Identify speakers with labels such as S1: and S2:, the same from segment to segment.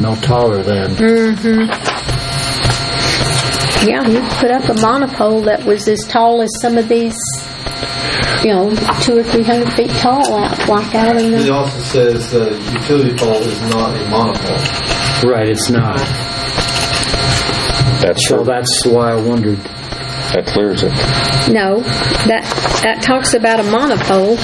S1: no taller than.
S2: Yeah, you put up a monopole that was as tall as some of these, you know, two or three hundred feet tall out, like out in
S3: It
S2: the,
S3: also says the utility pole is not a monopole.
S1: Right, it's not.
S4: That's
S1: So
S4: true.
S1: that's why I wondered.
S4: That clears it.
S2: no, that, that talks about a monopole,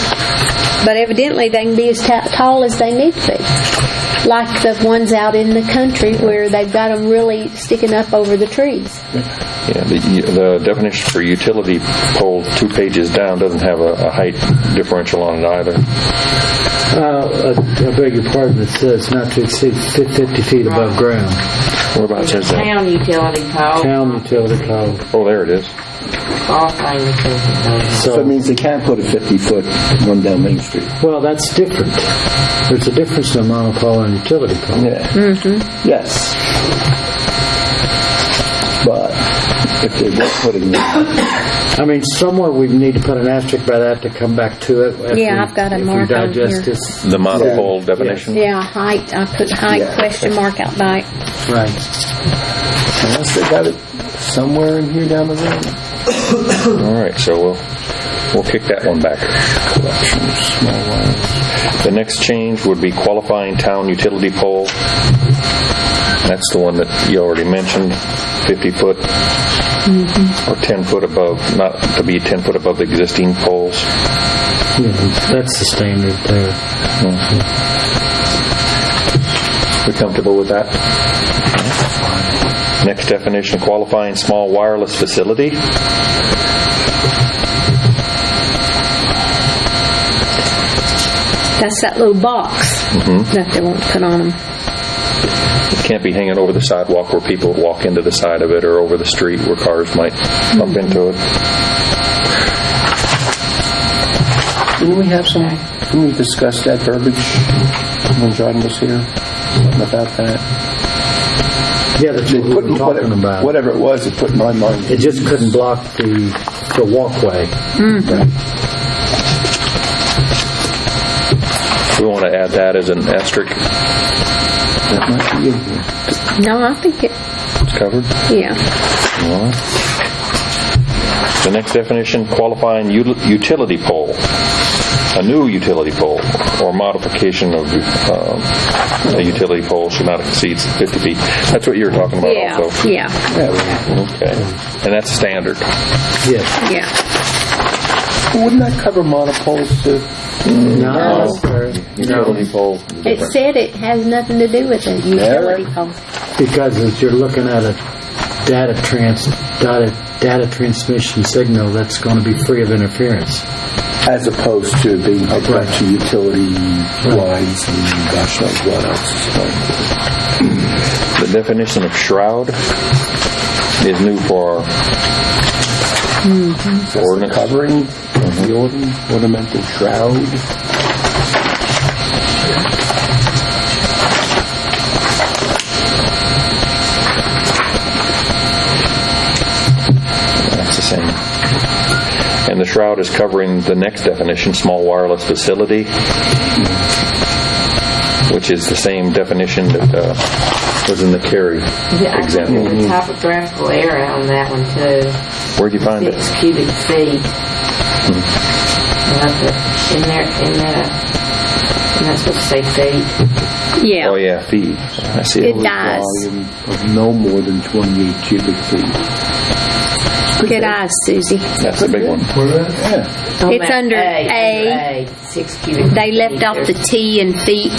S2: but evidently they can be as ta- tall as they need to be. Like the ones out in the country where they've got them really sticking up over the trees.
S4: Yeah, the, the definition for utility pole, two pages down, doesn't have a, a height differential on it either.
S1: Uh, I I beg your pardon, it says not to exceed fif- 50 feet above ground.
S4: Whereabouts is that?
S5: Town utility pole.
S1: Town utility pole.
S4: Oh, there it is.
S5: All things utility
S6: So it
S1: So,
S6: means they can't put a 50-foot one down Main Street.
S1: well, that's different. There's a difference in monopole and utility pole.
S6: Yeah.
S2: Mm-hmm.
S6: Yes. But if they were putting it,
S1: I mean, somewhere we need to put an asterisk by that to come back to it. after
S2: Yeah,
S1: we-
S2: I've got a
S1: if we
S2: mark on
S1: digest
S2: here.
S1: this.
S4: The monopole definition?
S2: Yeah, height, I put height
S6: Yeah.
S2: question mark out by it.
S1: Right.
S6: unless they got it somewhere in here down the road.
S4: All right, so we'll, we'll kick that one back. The next change would be qualifying town utility pole. That's the one that you already mentioned, 50 foot or 10 foot above, not to be 10 foot above the existing poles.
S1: Yeah, that's the standard there.
S4: We comfortable with that? Next definition, qualifying small wireless facility.
S2: That's that little box that they won't put on them.
S4: Can't be hanging over the sidewalk where people walk into the side of it or over the street where cars might bump into it.
S6: Didn't we have some, didn't we discuss that verbiage when John was here? Something about that?
S1: Yeah, that's what we
S6: Put-
S1: were talking
S6: whatever-
S1: about.
S6: Whatever it was, it put my mind.
S1: It just couldn't block the, the walkway.
S4: We want to add that as an asterisk.
S6: That might be in here.
S2: No, I think it,
S4: It's covered.
S2: yeah.
S4: All right. The next definition, qualifying util- utility pole. A new utility pole or modification of um, a utility pole should not exceed 50 feet. That's what you were talking about
S2: Yeah,
S4: also.
S2: yeah,
S6: Yeah,
S4: Okay. And that's standard.
S1: Yes.
S2: yeah.
S6: well, Wouldn't that cover monopoles too?
S1: No.
S4: Utility pole.
S2: It said it has nothing to do with a utility pole.
S1: Because as you're looking at a data trans, data, data transmission signal that's going to be free of interference.
S6: As opposed to being hooked up to utility lines and gosh knows what else is going on.
S4: The definition of shroud is new for our ordinance.
S6: Covering the ornament- ornamental shroud.
S4: That's the same. And the shroud is covering the next definition, small wireless facility, which is the same definition that uh, was in the Cary
S5: Yeah, I think
S4: example.
S1: Mm-hmm.
S5: the topographical error on that one too,
S4: Where'd you find it?
S5: six cubic feet.
S1: Mm-hmm.
S5: Not the- In there, in that, and that's supposed to say feet.
S2: Yeah,
S4: Oh, yeah, feet. I see
S2: it
S4: it.
S2: dies.
S6: volume of no more than 28 cubic feet.
S2: Good eyes, Susie.
S4: That's the big one.
S6: Yeah.
S5: On
S2: It's
S5: that
S2: under A.
S5: under A, six cubic.
S2: They left
S5: feet.
S2: off the T and feet.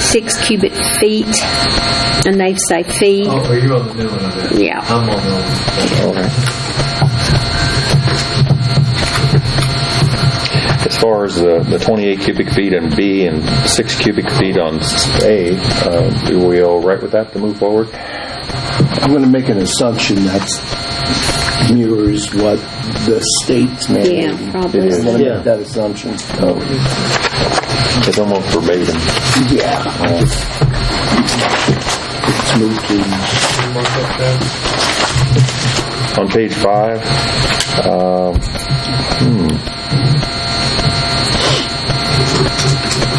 S2: Six cubic feet, and they say fee.
S3: Oh, are you on the new one of that?
S2: Yeah.
S3: I'm on the old one.
S4: As far as the the 28 cubic feet on B and 6 cubic feet on s- A, uh, are we all right with that to move forward?
S6: I'm going to make an assumption that mirrors what the state's mandating.
S2: Yeah, probably.
S6: I'm going to
S1: Yeah.
S6: make that assumption. So,
S4: It's almost verbatim.
S6: yeah. Let's move to-
S4: on page five, um, hmm.